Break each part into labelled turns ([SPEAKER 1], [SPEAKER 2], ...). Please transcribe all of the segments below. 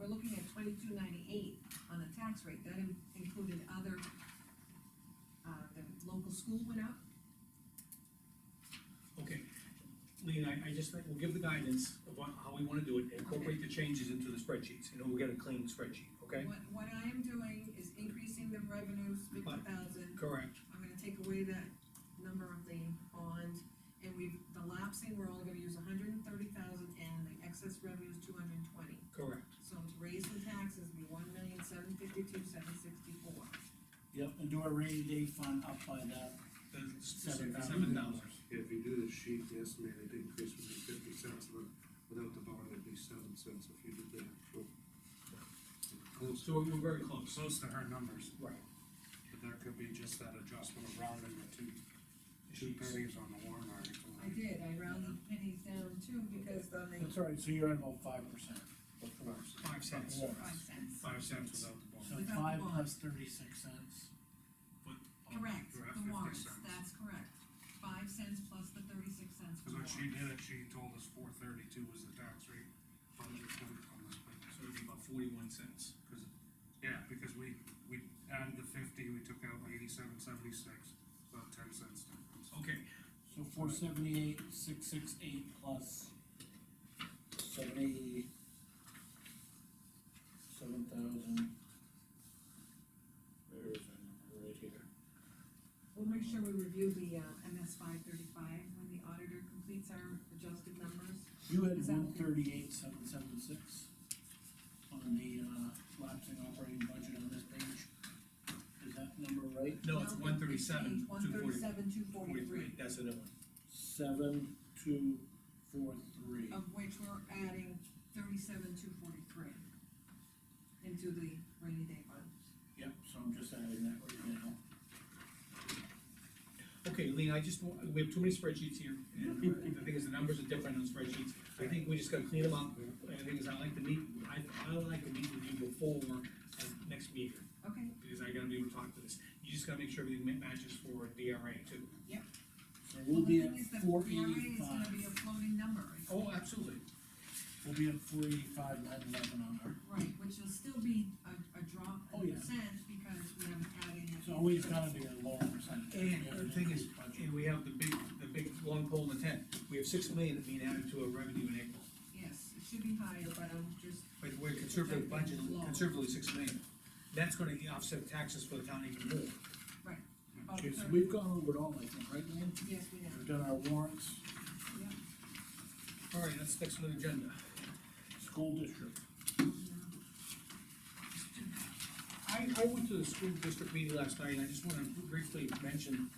[SPEAKER 1] we're looking at twenty-two ninety-eight on the tax rate, that in- included other, uh, the local school went up,
[SPEAKER 2] Okay, Lean, I, I just think we'll give the guidance of what, how we wanna do it, and incorporate the changes into the spreadsheets, and then we'll get a clean spreadsheet, okay?
[SPEAKER 1] What, what I am doing is increasing the revenues fifty thousand,
[SPEAKER 2] Correct.
[SPEAKER 1] I'm gonna take away that number of the bond, and we've, the lapsing, we're only gonna use hundred and thirty thousand, and the excess revenue is two hundred and twenty.
[SPEAKER 2] Correct.
[SPEAKER 1] So to raise the taxes, be one million, seven fifty-two, seven sixty-four.
[SPEAKER 3] Yep, and do a rainy day fund up by that, Seven thousand.
[SPEAKER 2] Seven dollars.
[SPEAKER 4] If you do the sheet, the estimated increase would be fifty cents, but without the bond, it'd be seven cents if you did the actual. Close,
[SPEAKER 2] So we're very close.
[SPEAKER 4] close to her numbers,
[SPEAKER 2] Right.
[SPEAKER 4] but there could be just that adjustment of rounding the two, two pennies on the warrant article.
[SPEAKER 1] I did, I rounded pennies down too, because on the
[SPEAKER 3] that's all right, so you're at about five percent.
[SPEAKER 2] Five cents.
[SPEAKER 1] five cents.
[SPEAKER 2] Five cents without the bond.
[SPEAKER 3] So
[SPEAKER 1] Without the
[SPEAKER 3] five
[SPEAKER 1] bond.
[SPEAKER 3] plus thirty-six cents.
[SPEAKER 1] Correct,
[SPEAKER 4] You're at
[SPEAKER 1] the
[SPEAKER 4] 50
[SPEAKER 1] warrants,
[SPEAKER 4] cents.
[SPEAKER 1] that's correct, five cents plus the thirty-six cents for
[SPEAKER 4] Cause when she
[SPEAKER 1] warrants.
[SPEAKER 4] did it, she told us four thirty-two was the tax rate on the report on this page.
[SPEAKER 2] So it'd be about forty-one cents, cause
[SPEAKER 4] Yeah, because we, we added the fifty, we took out eighty-seven seventy-six, about ten cents difference.
[SPEAKER 2] Okay,
[SPEAKER 3] So four seventy-eight, six six eight plus seventy. Seven thousand. Where is my number, right here?
[SPEAKER 1] We'll make sure we review the, uh, MS five thirty-five when the auditor completes our adjusted numbers.
[SPEAKER 3] You had
[SPEAKER 1] Is that-
[SPEAKER 3] one thirty-eight, seven seven six on the, uh, lapsing operating budget on this page. Is that number right?
[SPEAKER 2] no, it's one thirty-seven,
[SPEAKER 1] One
[SPEAKER 2] two forty,
[SPEAKER 1] thirty-seven, two
[SPEAKER 2] forty-three,
[SPEAKER 1] forty-three,
[SPEAKER 2] that's the number.
[SPEAKER 3] Seven, two, four, three.
[SPEAKER 1] of which we're adding thirty-seven, two forty-three into the rainy day fund.
[SPEAKER 3] Yep, so I'm just adding that right now.
[SPEAKER 2] Okay, Lean, I just, wa- we have too many spreadsheets here, and uh, the thing is, the numbers are different on spreadsheets. I think we just gotta clean them up, and the thing is, I like to meet, I, I would like to meet with you before uh, next meeting,
[SPEAKER 1] Okay,
[SPEAKER 2] because I gotta be able to talk to this. You just gotta make sure everything ma- matches for DRA too.
[SPEAKER 3] So
[SPEAKER 1] well,
[SPEAKER 3] we'll
[SPEAKER 1] the
[SPEAKER 3] be
[SPEAKER 1] thing
[SPEAKER 3] at
[SPEAKER 1] is, the
[SPEAKER 3] four
[SPEAKER 1] DRA is gonna be
[SPEAKER 3] eighty-five,
[SPEAKER 1] a floating number, it's-
[SPEAKER 2] Oh, absolutely.
[SPEAKER 3] we'll be at four eighty-five, nine eleven on her.
[SPEAKER 1] right, which will still be a, a drop
[SPEAKER 3] Oh,
[SPEAKER 1] in
[SPEAKER 3] yeah.
[SPEAKER 1] percent, because we haven't added any.
[SPEAKER 3] It's always gonna be a lower percentage.
[SPEAKER 2] And
[SPEAKER 3] We have
[SPEAKER 2] the
[SPEAKER 3] an
[SPEAKER 2] thing is,
[SPEAKER 3] increased budget.
[SPEAKER 2] and we have the big, the big long pole in the tent. We have six million being added to our revenue in April,
[SPEAKER 1] Yes, it should be higher, but I'm just,
[SPEAKER 2] but we're conservative budget, conservatively six million. That's gonna offset taxes for the town even more.
[SPEAKER 1] right.
[SPEAKER 3] Okay, so
[SPEAKER 1] Oh,
[SPEAKER 3] we've gone over it all, I think, right, Lynn?
[SPEAKER 1] Yes, we have,
[SPEAKER 3] We've done our warrants,
[SPEAKER 1] yeah.
[SPEAKER 2] All right, that's next on the agenda.
[SPEAKER 3] school district.
[SPEAKER 2] I, I went to the school district meeting last night, and I just wanna briefly mention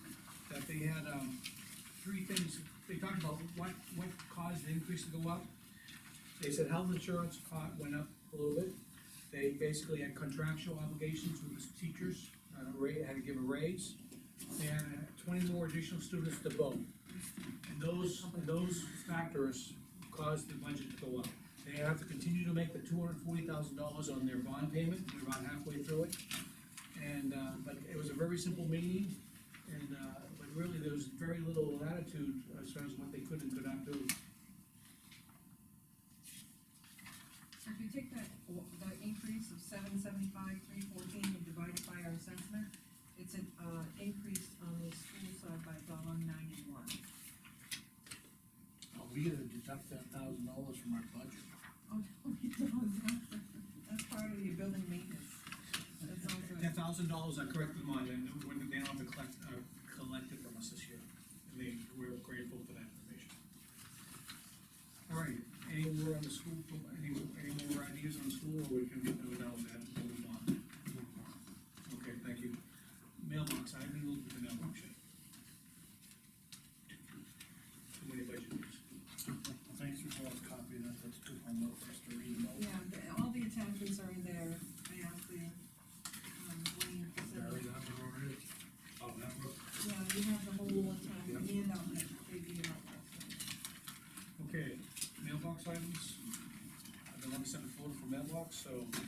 [SPEAKER 2] that they had, um, three things, they talked about what, what caused the increase to go up. They said health insurance caught, went up a little bit, they basically had contractual obligations with the teachers, uh, ra- had to give a raise. They had uh, twenty more additional students to vote. And those, those factors caused the budget to go up. They have to continue to make the two hundred and forty thousand dollars on their bond payment, they're about halfway through it. And, uh, but it was a very simple meeting, and, uh, but really, there was very little latitude as far as what they could and could not do.
[SPEAKER 1] So if you take that, the increase of seven seventy-five, three fourteen, and divide it by our assessment, it's an, uh, increase on the school side by dollar ninety-one.
[SPEAKER 3] Oh, we gotta deduct that thousand dollars from our budget.
[SPEAKER 1] Oh, no, we don't, that's, that's part of your building maintenance, that's all good.
[SPEAKER 2] That thousand dollars, I corrected them on, and when they don't have to collect, uh, collect it from us this year, and they, we're grateful for that information. All right, any more on the school, any, any more ideas on school, or we can, we know that, we'll move on? Okay, thank you. Mailbox, I haven't looked at the mailbox yet. Too many budget meetings.
[SPEAKER 3] Thanks for all the copy, that, that's good homework for us to read them
[SPEAKER 1] Yeah, the- all the attachments are in there, I asked the, um, Wayne to send
[SPEAKER 4] Barry,
[SPEAKER 1] it.
[SPEAKER 4] that one already? Oh, that one?
[SPEAKER 1] Yeah, you have the whole attachment, handout that they gave out.
[SPEAKER 2] Okay, mailbox items. I've been on the seventh floor for mailbox, so